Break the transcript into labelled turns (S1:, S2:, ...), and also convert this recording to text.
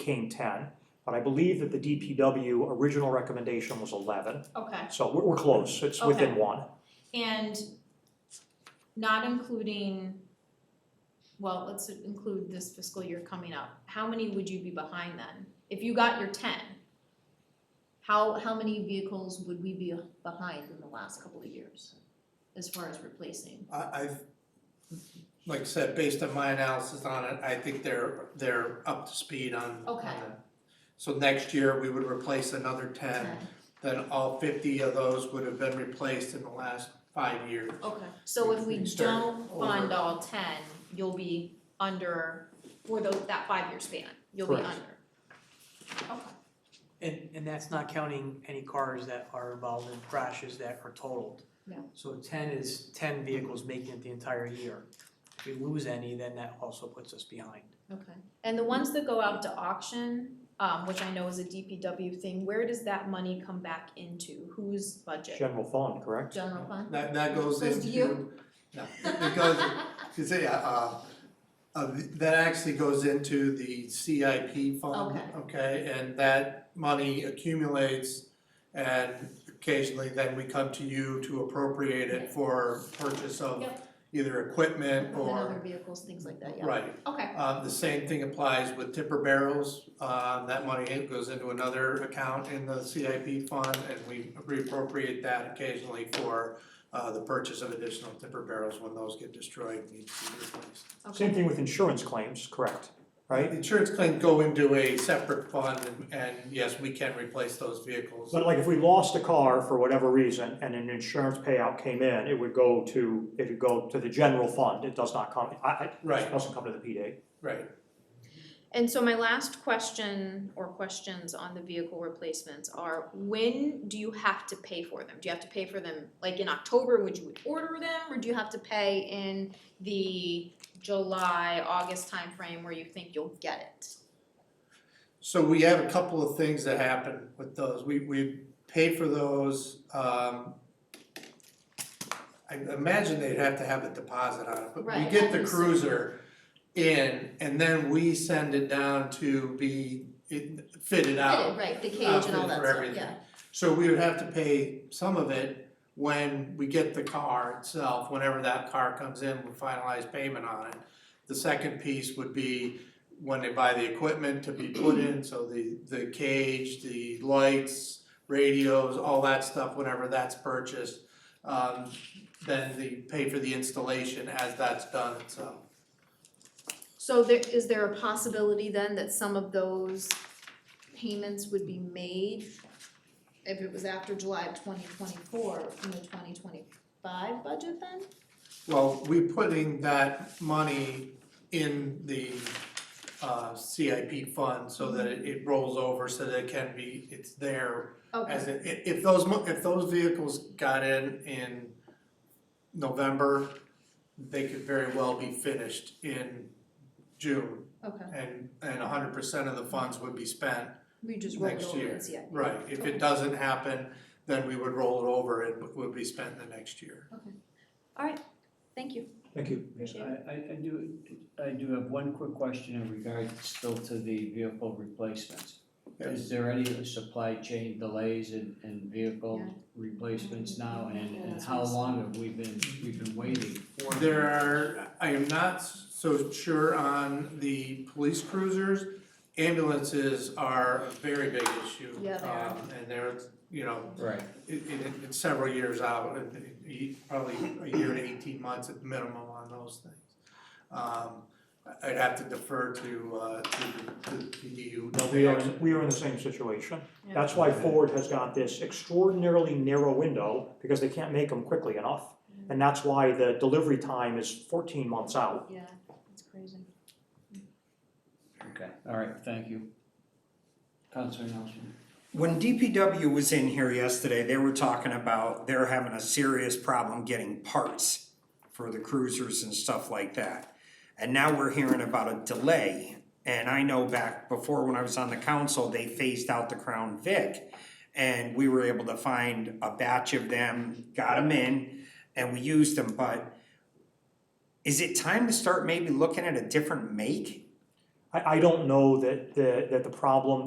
S1: came ten, but I believe that the DPW original recommendation was eleven.
S2: Okay,
S1: So we're, we're close, it's within
S2: Okay.
S1: one.
S2: and not including, well, let's include this fiscal year coming up, how many would you be behind then? If you got your ten, how, how many vehicles would we be behind in the last couple of years as far as replacing?
S3: I, I've, like I said, based on my analysis on it, I think they're, they're up to speed on. on
S2: Okay.
S3: that. So next year, we would replace another ten, then all fifty of those would have been replaced in the last five years.
S2: Okay, so if we
S3: We start
S2: don't fund
S3: over.
S2: all ten, you'll be under, for those, that five-year span, you'll be under.
S1: Correct.
S2: Okay,
S4: And, and that's not counting any cars that are involved in crashes that are totaled.
S2: Yeah.
S4: So ten is ten vehicles making it the entire year. If we lose any, then that also puts us behind.
S2: okay. And the ones that go out to auction, um, which I know is a DPW thing, where does that money come back into? Whose budget?
S1: General fund, correct?
S2: General fund?
S3: That, that goes into.
S2: Goes to you?
S3: No, it goes, you say, uh, uh, uh, that actually goes into the CIP fund,
S2: Okay.
S3: okay? And that money accumulates and occasionally then we come to you to appropriate it for purchase of
S2: Yep.
S3: either equipment
S2: And other
S3: or,
S2: vehicles, things like that, yeah.
S3: right.
S2: Okay,
S3: Uh, the same thing applies with tipper barrels, uh, that money goes into another account in the CIP fund and we reappropriate that occasionally for uh, the purchase of additional tipper barrels when those get destroyed, and need to be replaced.
S1: Same
S2: okay,
S1: thing with insurance claims, correct,
S3: The
S1: right?
S3: Insurance claims go into a separate fund and, and yes, we can replace those vehicles.
S1: But like if we lost a car for whatever reason and an insurance payout came in, it would go to, it would go to the general fund, it does not come, I, I, it
S3: Right,
S1: doesn't come to the PD.
S3: right.
S2: and so my last question or questions on the vehicle replacements are, when do you have to pay for them? Do you have to pay for them, like in October, would you order them, or do you have to pay in the July, August timeframe where you think you'll get it?
S3: So we have a couple of things that happen with those, we, we pay for those, um. I imagine they'd have to have a deposit on it, but we
S2: Right,
S3: get
S2: I
S3: the
S2: think so.
S3: cruiser in, and then we send it down to be it- fitted out.
S2: Fitted, right, the cage
S3: uh,
S2: and all
S3: for-
S2: that
S3: for
S2: stuff,
S3: everything.
S2: yeah.
S3: So we would have to pay some of it when we get the car itself, whenever that car comes in, we finalize payment on it. The second piece would be when they buy the equipment to be put in, so the, the cage, the lights, radios, all that stuff, whenever that's purchased. Um, then they pay for the installation as that's done itself.
S2: So there, is there a possibility then that some of those payments would be made if it was after July of twenty twenty-four, in the twenty twenty-five budget then?
S3: Well, we putting that money in the uh CIP fund so that it it rolls over so that it can be, it's there.
S2: Okay,
S3: As it, i- if those, mo- if those vehicles got in in November, they could very well be finished in June.
S2: okay,
S3: And and hundred percent of the funds would be spent,
S2: we just rolled it
S3: Next
S2: over
S3: year,
S2: and see it.
S3: right, if it doesn't happen, then we would roll it over and it would be spent the next year.
S2: Thank you.
S1: Thank you.
S2: Appreciate
S5: I, I, I do, I do have one quick question in regards still to the vehicle replacements. Is there any supply chain delays in, in vehicle
S2: Yeah. Mm-hmm.
S5: replacements now, and, and how long have we been, we've been waiting for? them?
S3: There are, I am not so sure on the police cruisers. Ambulances are a very big issue.
S2: Yeah, they are.
S3: um, And they're, you know,
S5: Right,
S3: it, it, it's several years out, and it- it- probably a year to eighteen months at minimum on those things. Um, I- I'd have to defer to, uh, to the, to the PD who.
S1: No, we are, in- we are in the same situation. That's why Ford has got this extraordinarily narrow window, because they can't make them quickly enough. And that's why the delivery time is fourteen months out.
S2: Yeah, that's crazy.
S5: okay, all right, thank you. Counselor Nelson,
S6: When DPW was in here yesterday, they were talking about they're having a serious problem getting parts for the cruisers and stuff like that. And now we're hearing about a delay. And I know back before when I was on the council, they phased out the Crown Vic. And we were able to find a batch of them, got them in, and we used them, but is it time to start maybe looking at a different make?
S1: I, I don't know that, that, that the problem